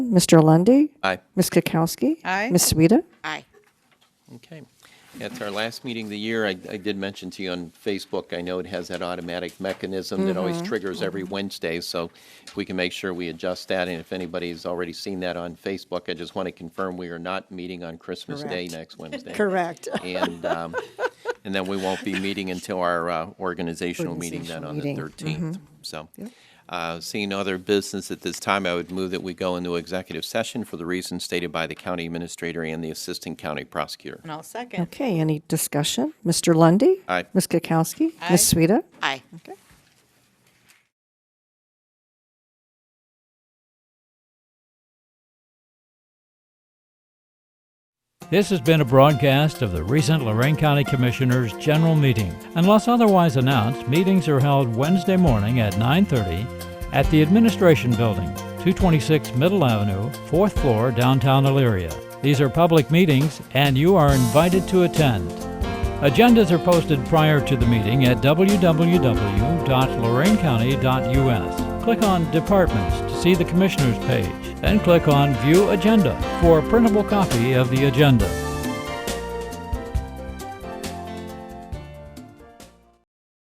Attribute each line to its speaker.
Speaker 1: Mr. Lundy,
Speaker 2: Aye.
Speaker 1: Ms. Kukowski.
Speaker 3: Aye.
Speaker 1: Ms. Sueda.
Speaker 3: Aye.
Speaker 2: Okay. At our last meeting of the year, I, I did mention to you on Facebook, I know it has that automatic mechanism that always triggers every Wednesday, so if we can make sure we adjust that, and if anybody's already seen that on Facebook, I just want to confirm we are not meeting on Christmas Day
Speaker 4: Correct.
Speaker 2: next Wednesday.
Speaker 4: Correct.
Speaker 2: And, um, and then we won't be meeting until our uh, organizational meeting then on the
Speaker 1: Organizational
Speaker 2: thirteenth. So, uh, seeing no other business at this time, I would move that we go into executive session for the reasons stated by the county administrator and the assistant county prosecutor.
Speaker 3: And I'll second.
Speaker 1: Okay, any discussion? Mr. Lundy,
Speaker 2: Aye.
Speaker 1: Ms. Kukowski. Ms. Sueda.
Speaker 3: Aye.
Speaker 5: This has been a broadcast of the recent Lorraine County Commissioners' General Meeting. Unless otherwise announced, meetings are held Wednesday morning at 9:30 at the Administration Building, 226 Middle Avenue, 4th floor, downtown Elyria. These are public meetings and you are invited to attend. Agendas are posted prior to the meeting at www.lorainecounty.us. Click on Departments to see the Commissioners page, then click on View Agenda for a printable copy of the agenda.